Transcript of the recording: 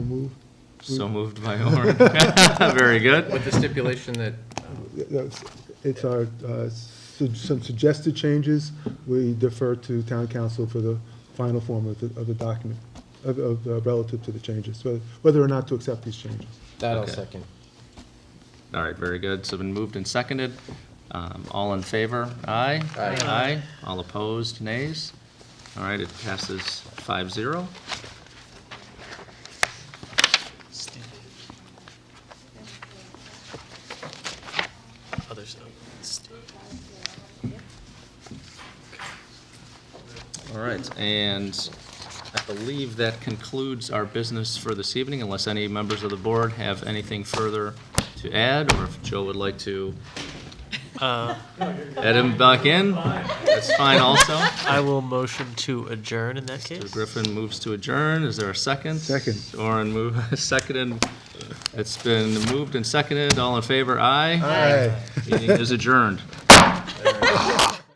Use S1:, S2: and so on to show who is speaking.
S1: move.
S2: So moved by Orin. Very good.
S3: With the stipulation that,
S1: That's- It's our, uh, su- some suggested changes. We defer to town council for the final form of the, of the document, of, of, uh, relative to the changes, whether- whether or not to accept these changes.
S3: that I'll
S2: Okay.
S3: second.
S2: All right, very good. So been moved and seconded. Um, All in favor? Aye?
S3: Aye.
S2: Aye. All opposed? Nays? All right, it passes five zero.
S4: Other side.
S2: All right, and I believe that concludes our business for this evening, unless any members of the board have anything further to add, or if Joe would like to add him back in, that's fine also.
S4: I will motion to adjourn in that case.
S2: Griffin moves to adjourn. Is there a second?
S1: Second.
S2: Orin move, seconded. It's been moved and seconded. All in favor? Aye.
S1: Aye.
S2: Meeting is adjourned.